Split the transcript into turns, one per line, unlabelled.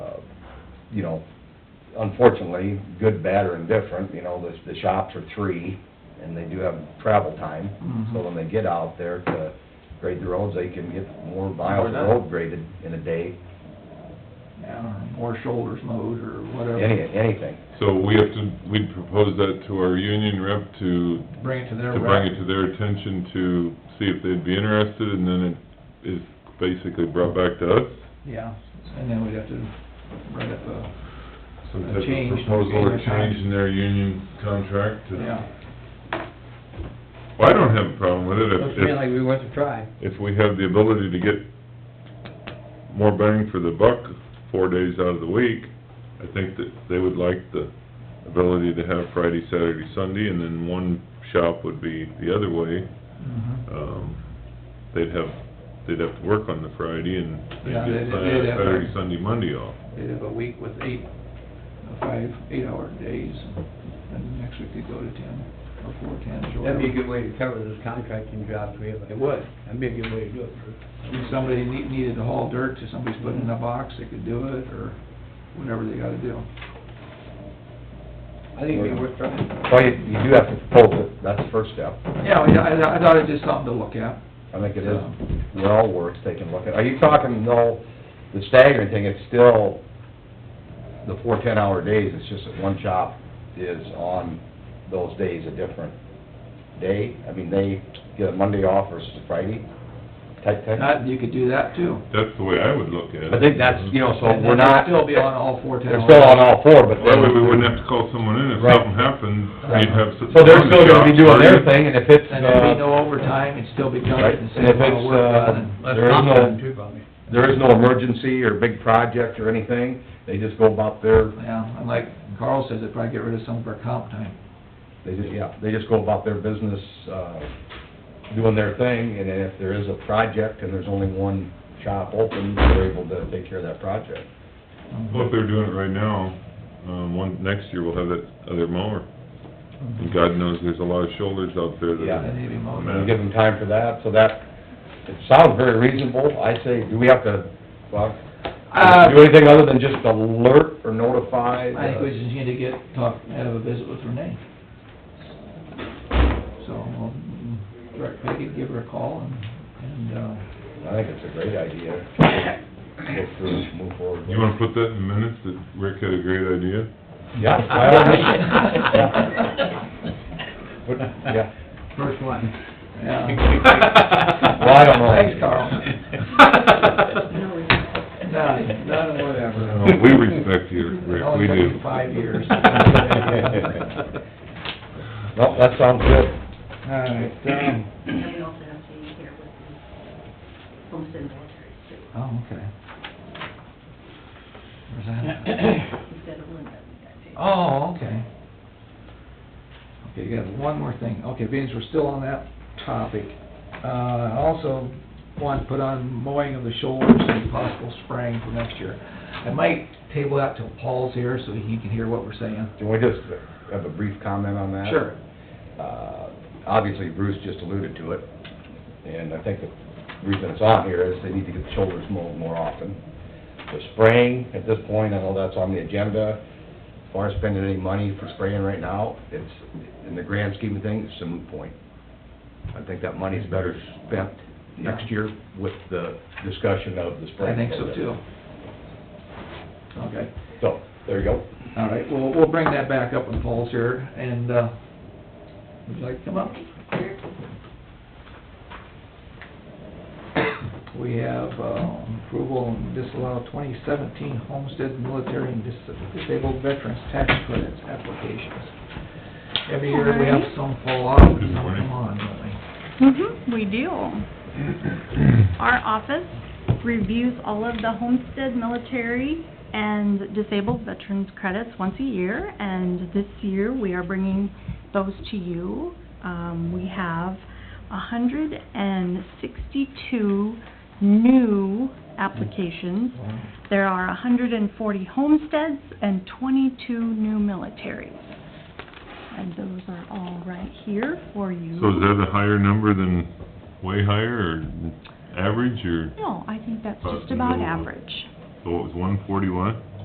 uh, you know, unfortunately, good, bad, or indifferent, you know, the, the shops are three, and they do have travel time. So when they get out there to grade the roads, they can get more miles of road graded in a day,
Yeah, uh, or shoulders mowed or whatever,
any, anything.
So we have to, we'd propose that to our union rep to,
bring it to their
to bring
rec.
it to their attention to see if they'd be interested, and then it is basically brought back to us.
Yeah, and then we'd have to write up a,
Some
A
type of
change.
proposal or change in their union contract to...
yeah.
Well, I don't have a problem with it if,
Looks to me
if,
like we worth a try.
if we have the ability to get more bang for the buck four days out of the week. I think that they would like the ability to have Friday, Saturday, Sunday, and then one shop would be the other way.
Mhm.
Um, they'd have, they'd have to work on the Friday and
Yeah,
they'd
they'd-
get
they'd have-
Saturday, Sunday, Monday off.
They'd have a week with eight, five, eight-hour days, and next week they'd go to ten, or four tens, or
That'd
whatever.
be a good way to cover those contracting jobs we have. It would. That'd be a good way to do it, Bruce.
If somebody need- needed to haul dirt, if somebody's putting in a box, they could do it, or whatever they gotta do.
I think it'd be worth trying.
Well, you, you do have to propose it, that's the first step.
Yeah, yeah, I, I thought it was just something to look at.
I think it is well worth taking a look at. Are you talking, though, the staggering thing, it's still the four ten-hour days, it's just that one shop is on those days a different day? I mean, they get a Monday off versus a Friday type thing?
That, you could do that too.
That's the way I would look at it.
I think that's, you know, so
And
we're
they'd
not,
Still be on all four ten
they're still on all four, but
That way we
then,
wouldn't have to call someone in if
Right.
something happened, we'd have. s-
so they're still gonna be doing their
Friday.
thing, and if it's,
And there'd be
uh,
no overtime, it'd still be done
Right.
at the
And if
same amount
it's,
of work
uh,
done. and-
Less
There is no-
confident too, probably.
there is no emergency or big project or anything, they just go about their
Yeah, and like Carl says, it'd probably get rid of some of our comp time.
They just, yeah, they just go about their business, uh, doing their thing, and then if there is a project and there's only one shop open, they're able to take care of that project.
Um,
Well, if they're doing it right now, um, one, next year we'll have that other mower. And God knows there's a lot of shoulders out there that.
Yeah.
And they'd be mowing.
And give them time for that, so that, it sounds very reasonable, I say, do we have to, well,
Uh,
do anything other than just alert or notify? Uh,
I think we just need to get, talk, have a visit with Renee. So, we'll direct Peggy, give her a call and, and, uh,
I think it's a great idea, go through, move forward.
You wanna put that in minutes, that Rick had a great idea?
Yeah. by all means. Yeah. Put- Yeah.
First one.
yeah.
Well, I don't know.
Thanks, Carl. None, none, whatever.
Oh, We respect you, Rick, we
It only took
do.
you five years.
Well, that sounds good.
Alright, um,
And we also have Jamie here with the homestead military too,
oh, okay. Where's that?
instead of Linda, we got Jamie.
Oh, okay. Okay, you got one more thing. Okay, beans, we're still on that topic. Uh, I also want to put on mowing of the shoulders and possible spraying for next year. I might table that till Paul's here so he can hear what we're saying.
Can we just have a brief comment on that?
Sure.
Uh, Obviously, Bruce just alluded to it, and I think the reason it's on here is they need to get the shoulders mowed more often. The spraying, at this point, I know that's on the agenda, As far as spending any money for spraying right now, it's, in the grand scheme of things, it's a moot point. I think that money's better spent next year with the discussion of the
I
spraying.
think so too. Okay.
So, there you go.
All right, well, we'll bring that back up when Paul's here, and, uh, would you like to come up? We have, uh, approval and disallow twenty seventeen homestead military and dis- disabled veterans tax credits applications. Every year we have some fall off and some come on, don't we?
hmm we do. Our office reviews all of the homestead, military, and disabled veterans credits once a year, and this year we are bringing those to you. Um, we have hundred and sixty-two new applications. There are hundred and forty homesteads and twenty-two new militaries. And those are all right here for you.
So is that a higher number than, way higher, or average, or,
No, I think that's
Uh,
just about
no.
average.
so it was one forty-one?